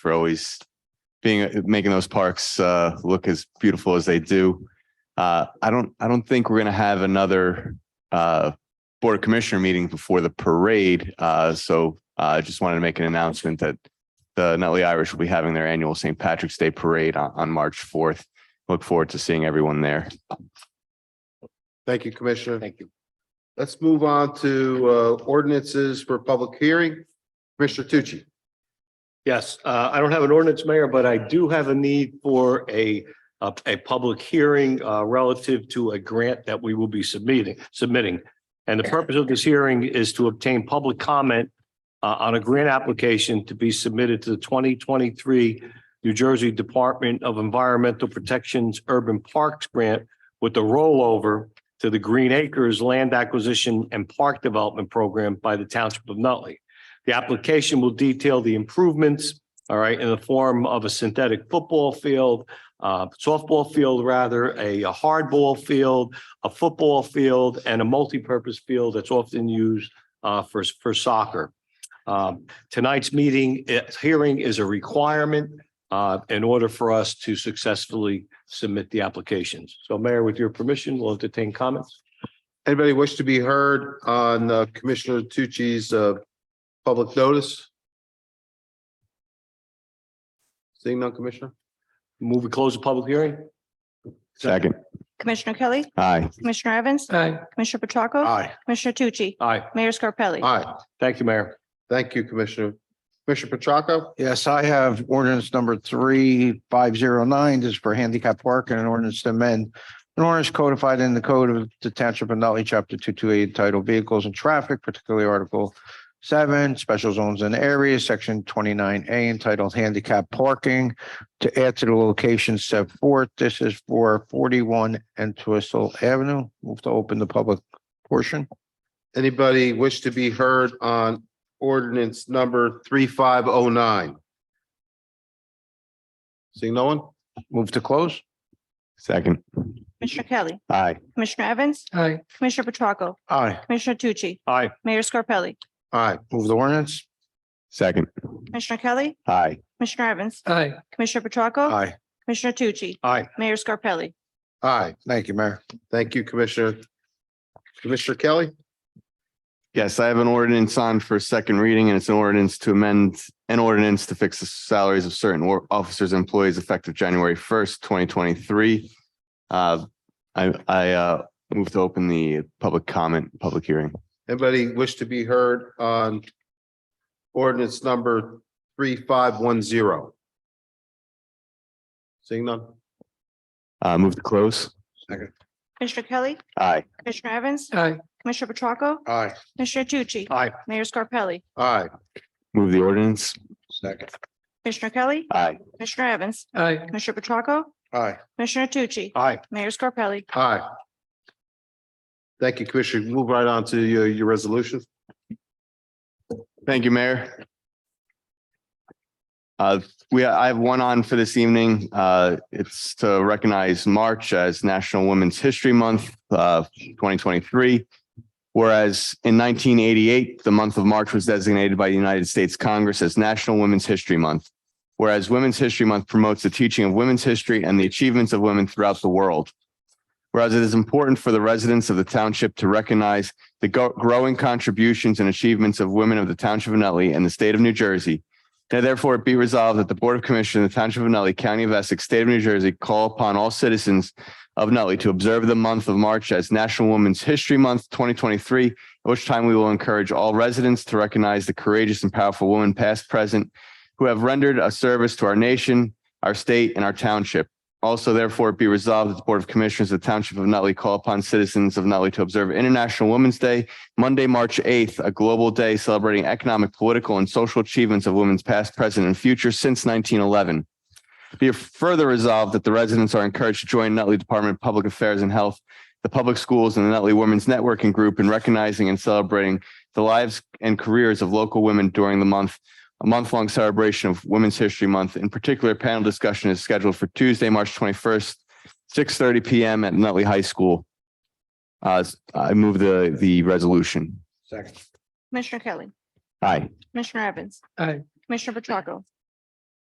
for always being, making those parks uh, look as beautiful as they do. Uh, I don't, I don't think we're going to have another uh, Board of Commissioner meeting before the parade. Uh, So uh, I just wanted to make an announcement that the Nutley Irish will be having their annual St. Patrick's Day Parade on, on March 4th. Look forward to seeing everyone there. Thank you, Commissioner. Thank you. Let's move on to uh, ordinances for public hearing. Commissioner Tucci, Yes, uh, I don't have an ordinance, Mayor, but I do have a need for a, a, a public hearing, uh, relative to a grant that we will be submitting, submitting. And the purpose of this hearing is to obtain public comment, uh, on a grant application to be submitted to the twenty twenty-three New Jersey Department of Environmental Protection's Urban Parks Grant with the rollover to the Green Acres Land Acquisition and Park Development Program by the Township of Nutley. The application will detail the improvements, all right, in the form of a synthetic football field, uh, softball field, rather, a a hardball field, a football field, and a multipurpose field that's often used uh, for, for soccer. Um, Tonight's meeting, eh, hearing is a requirement uh, in order for us to successfully submit the applications. So Mayor, with your permission, we'll entertain comments. anybody wish to be heard on uh, Commissioner Tucci's uh, public notice? Seeing none, Commissioner? Move, we close the public hearing? Second. Commissioner Kelly, Aye. Commissioner Evans, Aye. Commissioner Petracca. Aye. Commissioner Tucci, Aye. Mayor Scarpelli. Aye. Thank you, Mayor. Thank you, Commissioner. Commissioner Petracca, Yes, I have ordinance number three, five zero nine, this is for handicap parking and an ordinance to amend. An ordinance codified in the code of the township of Nutley, chapter two two eight, titled vehicles and traffic, particularly article seven, special zones and areas, section twenty nine A entitled handicap parking. To add to the location set forth, this is for forty one and Twistle Avenue. Move to open the public portion. anybody wish to be heard on ordinance number three five oh nine? Seeing no one? Move to close. Second. Commissioner Kelly, Aye. Commissioner Evans, Aye. Commissioner Petracca, Aye. Commissioner Tucci, Aye. Mayor Scarpelli. Aye. Move the ordinance. Second. Commissioner Kelly, Aye. Commissioner Evans, Aye. Commissioner Petracca. Aye. Commissioner Tucci, Aye. Mayor Scarpelli. Aye. Thank you, Mayor. Thank you, Commissioner. Commissioner Kelly? Yes, I have an ordinance on for second reading and it's an ordinance to amend an ordinance to fix the salaries of certain war- officers and employees effective January first, twenty twenty-three. Uh, I, I, uh, move to open the public comment, public hearing. Anybody wish to be heard on ordinance number three five one zero? Seeing none? Uh, move to close. Commissioner Kelly, Aye. Commissioner Evans, Aye. Commissioner Petracca, Aye. Commissioner Tucci. Aye. Mayor Scarpelli, Aye. Move the ordinance. Second. Commissioner Kelly, Aye. Commissioner Evans, Aye. Commissioner Petracca, Aye. Commissioner Tucci, Aye. Mayor Scarpelli. Aye. Thank you, Commissioner. Move right on to your, your resolution. Thank you, Mayor. Uh, we, I have one on for this evening. Uh, it's to recognize March as National Women's History Month, uh, twenty twenty-three. Whereas in nineteen eighty-eight, the month of March was designated by the United States Congress as National Women's History Month. Whereas Women's History Month promotes the teaching of women's history and the achievements of women throughout the world. Whereas it is important for the residents of the township to recognize the go- growing contributions and achievements of women of the Township of Nutley and the State of New Jersey. Now therefore it be resolved that the Board of Commissioners of the Township of Nutley, County of Essex, State of New Jersey, call upon all citizens of Nutley to observe the month of March as National Women's History Month, twenty twenty-three, at which time we will encourage all residents to recognize the courageous and powerful women, past, present, who have rendered a service to our nation, our state, and our township. Also, therefore, it be resolved that the Board of Commissioners of the Township of Nutley call upon citizens of Nutley to observe International Women's Day, Monday, March 8th, a global day celebrating economic, political, and social achievements of women's past, present, and future since 1911. Be it further resolved that the residents are encouraged to join Nutley Department of Public Affairs and Health, the public schools, and the Nutley Women's Networking Group in recognizing and celebrating the lives and careers of local women during the month a month-long celebration of Women's History Month. In particular, panel discussion is scheduled for Tuesday, March twenty-first, six thirty PM at Nutley High School. Uh, I move the, the resolution. Second. Commissioner Kelly, Aye. Commissioner Evans. Aye. Commissioner Petracca,